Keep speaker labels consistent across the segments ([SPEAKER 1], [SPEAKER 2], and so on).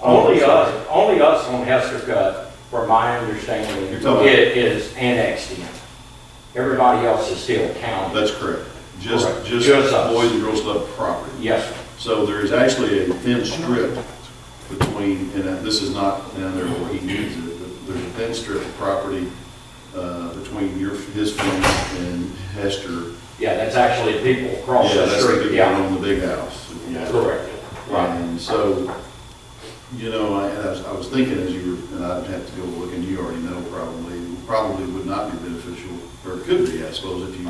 [SPEAKER 1] Only us, only us on Hester Cut, from my understanding,
[SPEAKER 2] You're
[SPEAKER 1] it
[SPEAKER 2] talking-
[SPEAKER 1] is annexed in. Everybody else is still county.
[SPEAKER 2] That's correct. Just,
[SPEAKER 1] Correct.
[SPEAKER 2] just
[SPEAKER 1] Just us.
[SPEAKER 2] Boys and Girls Club property.
[SPEAKER 1] Yes, sir.
[SPEAKER 2] So there is actually a thin strip between, and that- this is not down there where he needs it, but there's a thin strip of property uh, between your, his fence and Hester.
[SPEAKER 1] yeah, that's actually people across
[SPEAKER 2] Yeah,
[SPEAKER 1] the
[SPEAKER 2] that's the
[SPEAKER 1] street,
[SPEAKER 2] people
[SPEAKER 1] yeah.
[SPEAKER 2] on the big house.
[SPEAKER 1] Correct, right.
[SPEAKER 2] And so, you know, I, and I was, I was thinking as you were, and I'd have to go look, and you already know probably, probably would not be beneficial, or could be, I suppose, if you,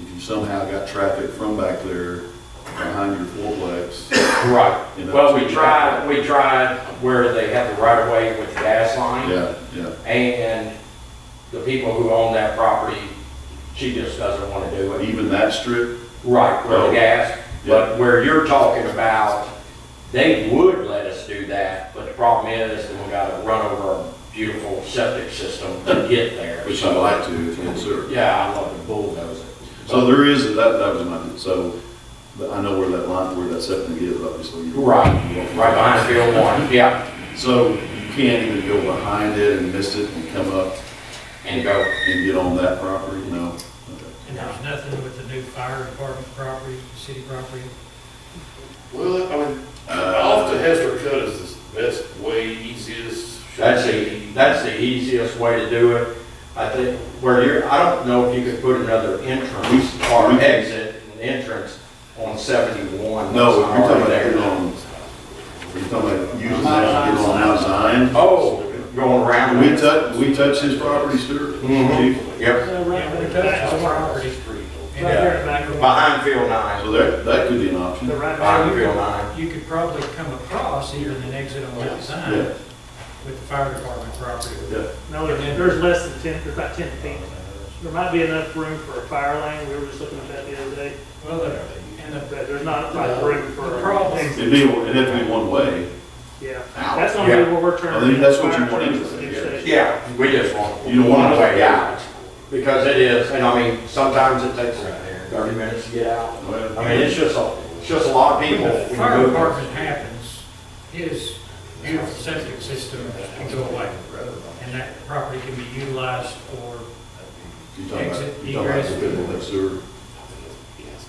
[SPEAKER 2] if you somehow got traffic from back there behind your fourplex. You
[SPEAKER 1] Right.
[SPEAKER 2] know,
[SPEAKER 1] Well,
[SPEAKER 2] so
[SPEAKER 1] we
[SPEAKER 2] you-
[SPEAKER 1] tried, we tried where they have the right of way with the gas line.
[SPEAKER 2] Yeah, yeah.
[SPEAKER 1] And the people who own that property, she just doesn't want to do it.
[SPEAKER 2] Even that strip,
[SPEAKER 1] Right, where the gas,
[SPEAKER 2] Yeah.
[SPEAKER 1] but where you're talking about, they would let us do that, but the problem is, that we gotta run over a beautiful septic system to get there.
[SPEAKER 2] which I'd like to, if you consider.
[SPEAKER 1] Yeah, I love to bulldoze it.
[SPEAKER 2] So there is, that, that was my, so, but I know where that line, where that septic is, obviously. you-
[SPEAKER 1] Right, right behind field one, yeah,
[SPEAKER 2] So you can't even go behind it and miss it and come up
[SPEAKER 1] and go,
[SPEAKER 2] and get on that property, no? Okay.
[SPEAKER 3] And there's nothing with the new fire department property, city property.
[SPEAKER 4] Well, I mean, off
[SPEAKER 2] Uh,
[SPEAKER 4] the Hester Cut is the best way, easiest. should
[SPEAKER 1] that's the,
[SPEAKER 4] be.
[SPEAKER 1] that's the easiest way to do it. I think, where you're, I don't know if you could put another entrance or exit, an entrance on seventy-one.
[SPEAKER 2] No, if you're talking about
[SPEAKER 1] There.
[SPEAKER 2] getting on, you're talking about using that to get on out Zion.
[SPEAKER 1] Oh, going around.
[SPEAKER 2] We touch, we touch his property, Stuart?
[SPEAKER 1] Mhm.
[SPEAKER 2] Chief?
[SPEAKER 1] Yep,
[SPEAKER 3] Yeah,
[SPEAKER 4] Yeah,
[SPEAKER 3] we
[SPEAKER 4] we're
[SPEAKER 3] touched
[SPEAKER 4] back
[SPEAKER 3] the
[SPEAKER 4] on
[SPEAKER 3] property.
[SPEAKER 4] Hester Street.
[SPEAKER 3] And there in the back of the-
[SPEAKER 1] behind field nine,
[SPEAKER 2] So that, that could be an option.
[SPEAKER 3] The right
[SPEAKER 1] behind
[SPEAKER 3] value,
[SPEAKER 1] field nine.
[SPEAKER 3] you could probably come across even an exit on that side
[SPEAKER 2] Yeah,
[SPEAKER 3] with the fire department property.
[SPEAKER 2] yeah.
[SPEAKER 5] No, there's, there's less than ten, there's about ten feet. There might be enough room for a fire lane, we were just looking at that the other day,
[SPEAKER 3] Well, the- and the,
[SPEAKER 5] but there's not like room for.
[SPEAKER 3] The problem-
[SPEAKER 2] It'd be, it'd have to be one way.
[SPEAKER 5] Yeah, that's gonna
[SPEAKER 1] Yeah.
[SPEAKER 5] be where we're turning.
[SPEAKER 2] I think that's what you want
[SPEAKER 5] fire
[SPEAKER 2] anyway,
[SPEAKER 5] trucks and
[SPEAKER 2] yeah.
[SPEAKER 5] stuff.
[SPEAKER 1] Yeah, we just want.
[SPEAKER 2] You don't want
[SPEAKER 1] One
[SPEAKER 2] to-
[SPEAKER 1] way out, because it is, and I mean, sometimes it takes thirty minutes to get out. I mean, it's just a, it's just a lot of people.
[SPEAKER 3] when the fire department happens, his beautiful septic system can go away. And that property can be utilized for,
[SPEAKER 2] You're talking about, you're talking about
[SPEAKER 3] Exit,
[SPEAKER 2] the people that sewer.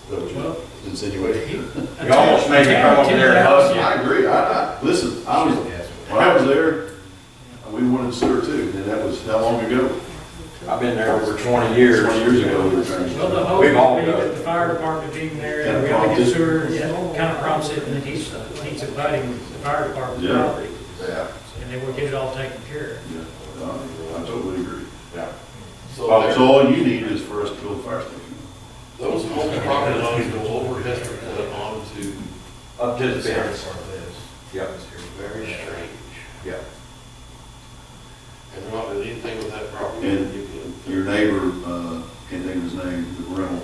[SPEAKER 2] That was
[SPEAKER 3] Well-
[SPEAKER 2] insinuating.
[SPEAKER 1] You almost made me come over there and hug you.
[SPEAKER 2] I agree, I, I, listen, I was, when I was there, we wanted sewer too, and that was how long ago?
[SPEAKER 1] I've been there over twenty years.
[SPEAKER 2] Twenty years ago. we were trying
[SPEAKER 3] Well, the
[SPEAKER 2] to-
[SPEAKER 3] whole,
[SPEAKER 1] We've all
[SPEAKER 3] thing
[SPEAKER 1] got it.
[SPEAKER 3] that the fire department being there,
[SPEAKER 2] Kind
[SPEAKER 3] and
[SPEAKER 2] of
[SPEAKER 3] we have to
[SPEAKER 2] prompted.
[SPEAKER 3] get sewer, kind of prompts it, and then he's, he's inviting the fire department
[SPEAKER 2] Yeah.
[SPEAKER 3] property,
[SPEAKER 2] Yeah.
[SPEAKER 3] and then we'll get it all taken care of.
[SPEAKER 2] Yeah, I totally agree.
[SPEAKER 4] So
[SPEAKER 2] Oh, So all you need is for us to build a fire station.
[SPEAKER 4] those whole property lines go over Hester Cut onto
[SPEAKER 1] Up to the fence. Yep,
[SPEAKER 4] very strange.
[SPEAKER 1] yep.
[SPEAKER 4] And they're not doing anything with that property.
[SPEAKER 2] And-
[SPEAKER 4] You can-
[SPEAKER 2] Your neighbor, uh, can't think of his name, the rental,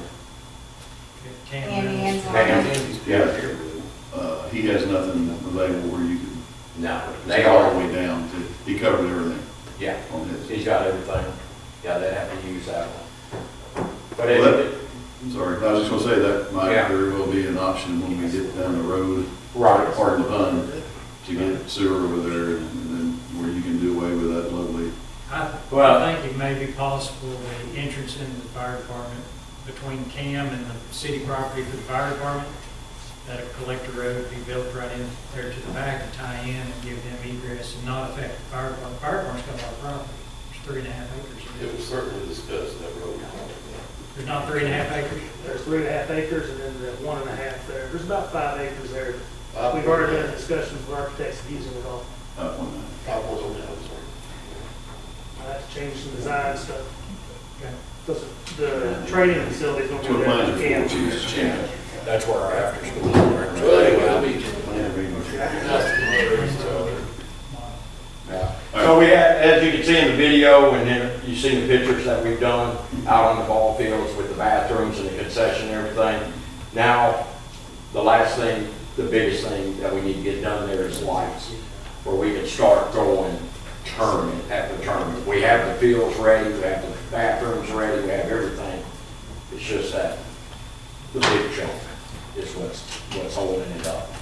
[SPEAKER 3] Tam
[SPEAKER 6] Andy
[SPEAKER 3] Reynolds.
[SPEAKER 6] Anselmo.
[SPEAKER 1] And, yeah,
[SPEAKER 2] uh, he has nothing available where you can.
[SPEAKER 1] no,
[SPEAKER 2] it's
[SPEAKER 1] they
[SPEAKER 2] all the
[SPEAKER 1] are,
[SPEAKER 2] way down to, he covered everything
[SPEAKER 1] yeah.
[SPEAKER 2] on his.
[SPEAKER 1] He's got everything. Yeah, they have to use that one. But
[SPEAKER 2] Well,
[SPEAKER 1] it,
[SPEAKER 2] that- I'm sorry, I was just gonna say that might
[SPEAKER 1] Yeah.
[SPEAKER 2] very well be an option when we get down the road,
[SPEAKER 1] right,
[SPEAKER 2] pardon the pun, to get sewer over there and then where you can do away with that lovely,
[SPEAKER 3] I
[SPEAKER 1] Well-
[SPEAKER 3] I think it may be possible the entrance into the fire department between Cam and the city property for the fire department, that a collector road would be built right in there to the back and tie in and give them egress and not affect the fire department. Fire department's got a lot of property, it's three and a half acres.
[SPEAKER 4] It was certainly discussed that road.
[SPEAKER 3] There's not three and a half acres?
[SPEAKER 5] There's three and a half acres and then the one and a half there, there's about five acres there.
[SPEAKER 4] Five
[SPEAKER 5] We've
[SPEAKER 4] point
[SPEAKER 5] already been in
[SPEAKER 4] nine.
[SPEAKER 5] discussions with architects using it all,
[SPEAKER 2] that one.
[SPEAKER 4] Five point oh nine, sorry.
[SPEAKER 5] I have to change some design stuff.
[SPEAKER 3] Okay.
[SPEAKER 5] Those- The training facilities don't
[SPEAKER 2] That's what
[SPEAKER 5] do
[SPEAKER 2] plans
[SPEAKER 5] that,
[SPEAKER 2] are
[SPEAKER 5] camp.
[SPEAKER 2] for, to use channel.
[SPEAKER 1] that's where our after school.
[SPEAKER 4] Well, anyway, I'll be.
[SPEAKER 1] Yeah. So we had, as you can see in the video, and then you've seen the pictures that we've done out on the ball fields with the bathrooms and the concession and everything. Now, the last thing, the biggest thing that we need to get done there is lights, where we can start going tournament after tournament. We have the fields ready, we have the bathrooms ready, we have everything. It's just that, the big chunk is what's, what's holding it up.